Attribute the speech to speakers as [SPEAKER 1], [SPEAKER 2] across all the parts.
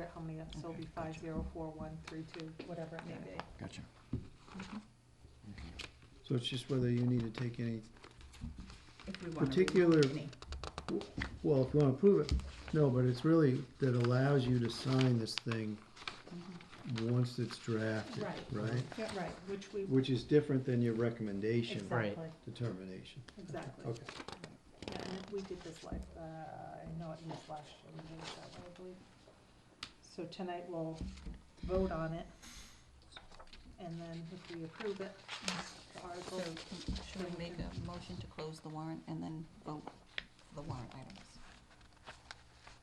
[SPEAKER 1] at how many, so it'll be five zero four one three two, whatever it may be.
[SPEAKER 2] Gotcha.
[SPEAKER 3] So it's just whether you need to take any,
[SPEAKER 4] if we want to
[SPEAKER 3] Particular-
[SPEAKER 4] remove any.
[SPEAKER 3] well, if you wanna prove it, no, but it's really that allows you to sign this thing once it's drafted,
[SPEAKER 1] Right.
[SPEAKER 3] right?
[SPEAKER 1] Yeah, right, which we,
[SPEAKER 3] Which is different than your recommendation
[SPEAKER 2] Right.
[SPEAKER 1] exactly,
[SPEAKER 3] determination.
[SPEAKER 1] exactly.
[SPEAKER 3] Okay,
[SPEAKER 1] Yeah, and we did this like, uh, I know it was last year, we did it that way, I believe. So tonight we'll vote on it, and then if we approve it, the
[SPEAKER 5] So,
[SPEAKER 1] article,
[SPEAKER 5] can- should we make a motion to close the warrant and then vote the warrant items?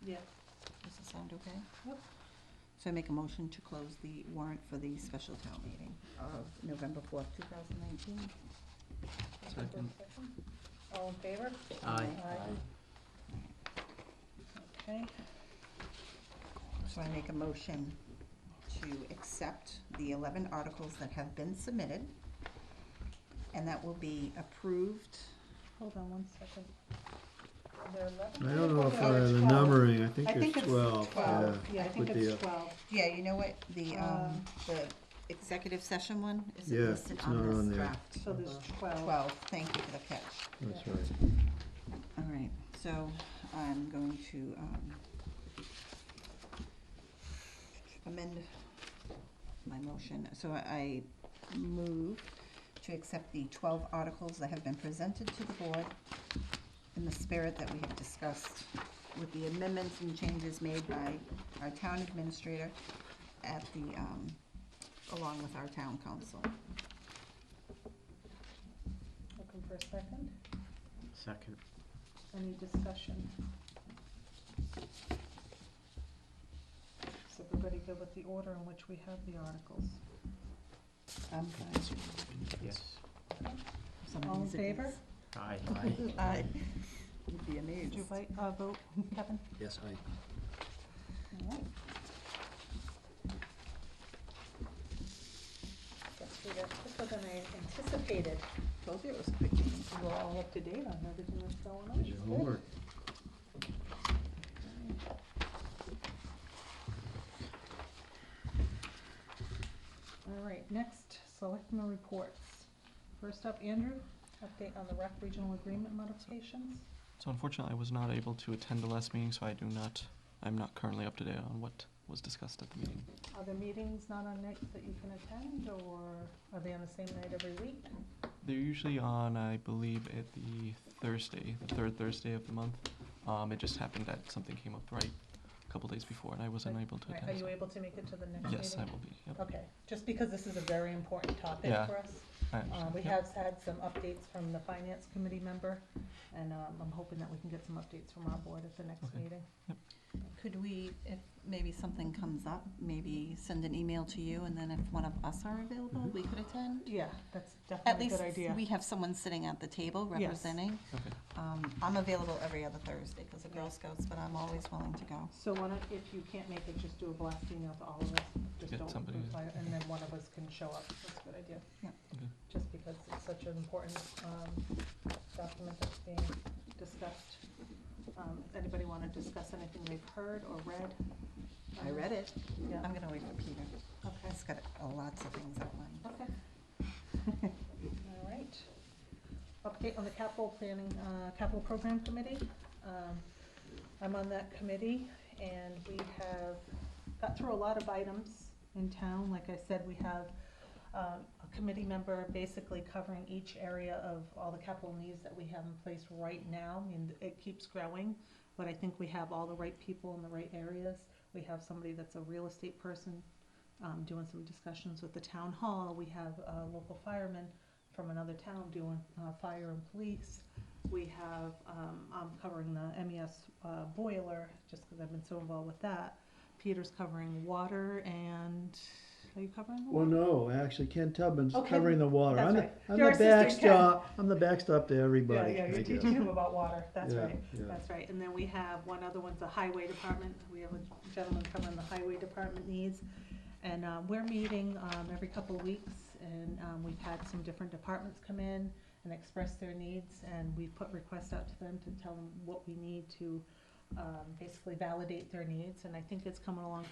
[SPEAKER 1] yeah,
[SPEAKER 5] Does that sound okay?
[SPEAKER 1] Yep.
[SPEAKER 5] So I make a motion to close the warrant for the special town meeting of November fourth, two thousand nineteen.
[SPEAKER 2] Second.
[SPEAKER 1] all in favor?
[SPEAKER 2] Aye.
[SPEAKER 1] Okay,
[SPEAKER 5] So I make a motion to accept the eleven articles that have been submitted. And that will be approved.
[SPEAKER 1] hold on one second. Are there eleven?
[SPEAKER 3] I don't know if
[SPEAKER 1] Oh,
[SPEAKER 3] uh,
[SPEAKER 1] there's
[SPEAKER 3] the
[SPEAKER 1] 12.
[SPEAKER 3] numbering, I think
[SPEAKER 1] I think
[SPEAKER 3] there's
[SPEAKER 1] it's
[SPEAKER 3] twelve, yeah.
[SPEAKER 1] Twelve, yeah, I think
[SPEAKER 3] with the, uh,
[SPEAKER 1] it's twelve.
[SPEAKER 5] Yeah, you know what, the, um,
[SPEAKER 1] Um,
[SPEAKER 5] the executive session one is
[SPEAKER 3] Yeah,
[SPEAKER 5] listed
[SPEAKER 3] it's not
[SPEAKER 5] on
[SPEAKER 3] on
[SPEAKER 5] this
[SPEAKER 3] there.
[SPEAKER 5] draft.
[SPEAKER 1] So there's
[SPEAKER 3] uh-huh.
[SPEAKER 1] twelve.
[SPEAKER 5] Twelve, thank you for the catch.
[SPEAKER 3] That's right.
[SPEAKER 5] All right, so I'm going to um, amend my motion. So I I move to accept the 12 articles that have been presented to the board in the spirit that we have discussed with the amendments and changes made by our town administrator at the, um, along with our town council.
[SPEAKER 1] Looking for a second,
[SPEAKER 2] Second.
[SPEAKER 1] any discussion? Is everybody good with the order in which we have the articles?
[SPEAKER 5] Um,
[SPEAKER 2] Yes.
[SPEAKER 5] somebody
[SPEAKER 1] All in
[SPEAKER 5] needs a yes.
[SPEAKER 1] favor?
[SPEAKER 2] Aye.
[SPEAKER 5] Aye. You'd be
[SPEAKER 1] Did
[SPEAKER 5] amazed.
[SPEAKER 1] you vote, uh, vote, Kevin?
[SPEAKER 2] Yes, aye.
[SPEAKER 1] All right. Guess we got quicker than I anticipated.
[SPEAKER 5] Told you it was quick. Jane.
[SPEAKER 1] We're all up to date on everything that's going on.
[SPEAKER 3] Did your
[SPEAKER 1] Good.
[SPEAKER 3] homework.
[SPEAKER 1] All right, next, selectmen reports. First up, Andrew, update on the rec regional agreement modifications.
[SPEAKER 6] So unfortunately, I was not able to attend the last meeting, so I do not, I'm not currently up to date on what was discussed at the meeting.
[SPEAKER 1] Are the meetings not on nights that you can attend, or are they on the same night every week?
[SPEAKER 6] They're usually on, I believe, at the Thursday, the third Thursday of the month. Um, it just happened that something came up right a couple days before, and I was unable to
[SPEAKER 1] Right,
[SPEAKER 6] attend.
[SPEAKER 1] Are you
[SPEAKER 6] so-
[SPEAKER 1] able to make it to the next meeting?
[SPEAKER 6] Yes, I will be, yep.
[SPEAKER 1] Okay, just because this is a very important topic
[SPEAKER 6] Yeah.
[SPEAKER 1] for us.
[SPEAKER 6] I
[SPEAKER 1] Uh,
[SPEAKER 6] understand,
[SPEAKER 1] we
[SPEAKER 6] yep.
[SPEAKER 1] have had some updates from the finance committee member, and, um, I'm hoping that we can get some updates from our board at the next
[SPEAKER 6] Okay.
[SPEAKER 1] meeting.
[SPEAKER 5] Could we, if maybe something comes up, maybe send an email to you, and then if one of us are available, we could attend?
[SPEAKER 1] Mm-hmm. Yeah, that's
[SPEAKER 5] At
[SPEAKER 1] definitely a
[SPEAKER 5] least
[SPEAKER 1] good idea.
[SPEAKER 5] we have someone sitting at the table
[SPEAKER 1] Yes.
[SPEAKER 5] representing.
[SPEAKER 6] Okay.
[SPEAKER 5] Um, I'm available every other Thursday because of Girl Scouts, but I'm always willing to go.
[SPEAKER 1] So why not, if you can't make it, just do a blast email to all of us, just
[SPEAKER 6] Get
[SPEAKER 1] don't
[SPEAKER 6] somebody to-
[SPEAKER 1] reply, and then one of us can show up, that's a good idea.
[SPEAKER 5] Yeah.
[SPEAKER 6] Okay.
[SPEAKER 1] Just because it's such an important, um, document that's being discussed. Um, does anybody wanna discuss anything they've heard or read?
[SPEAKER 5] I read it.
[SPEAKER 1] Yeah,
[SPEAKER 5] I'm gonna wait for Peter.
[SPEAKER 1] okay,
[SPEAKER 5] He's got uh, lots of things outlined.
[SPEAKER 1] okay. All right. Update on the capital planning, uh, capital program committee. Um, I'm on that committee, and we have got through a lot of items in town. Like I said, we have um, a committee member basically covering each area of all the capital needs that we have in place right now. I mean, it keeps growing, but I think we have all the right people in the right areas. We have somebody that's a real estate person um, doing some discussions with the town hall. We have a local fireman from another town doing uh, fire and police. We have, um, I'm covering the MES uh, boiler, just because I've been so involved with that. Peter's covering water and, are you covering the
[SPEAKER 3] Well,
[SPEAKER 1] water?
[SPEAKER 3] no, actually Ken Tubman's
[SPEAKER 1] Oh, Ken-
[SPEAKER 3] covering the water.
[SPEAKER 1] that's
[SPEAKER 3] I'm the,
[SPEAKER 1] right.
[SPEAKER 3] I'm
[SPEAKER 1] Your
[SPEAKER 3] the
[SPEAKER 1] assistant, Ken.
[SPEAKER 3] backstop, I'm the backstop to everybody.
[SPEAKER 1] Yeah, yeah,
[SPEAKER 3] I
[SPEAKER 1] you're
[SPEAKER 3] guess.
[SPEAKER 1] teaching him about water, that's
[SPEAKER 3] Yeah,
[SPEAKER 1] right,
[SPEAKER 3] yeah.
[SPEAKER 1] that's right. And then we have, one other one's the highway department, we have a gentleman covering the highway department needs. And, um, we're meeting, um, every couple of weeks, and, um, we've had some different departments come in and express their needs, and we put requests out to them to tell them what we need to, um, basically validate their needs, and I think it's coming along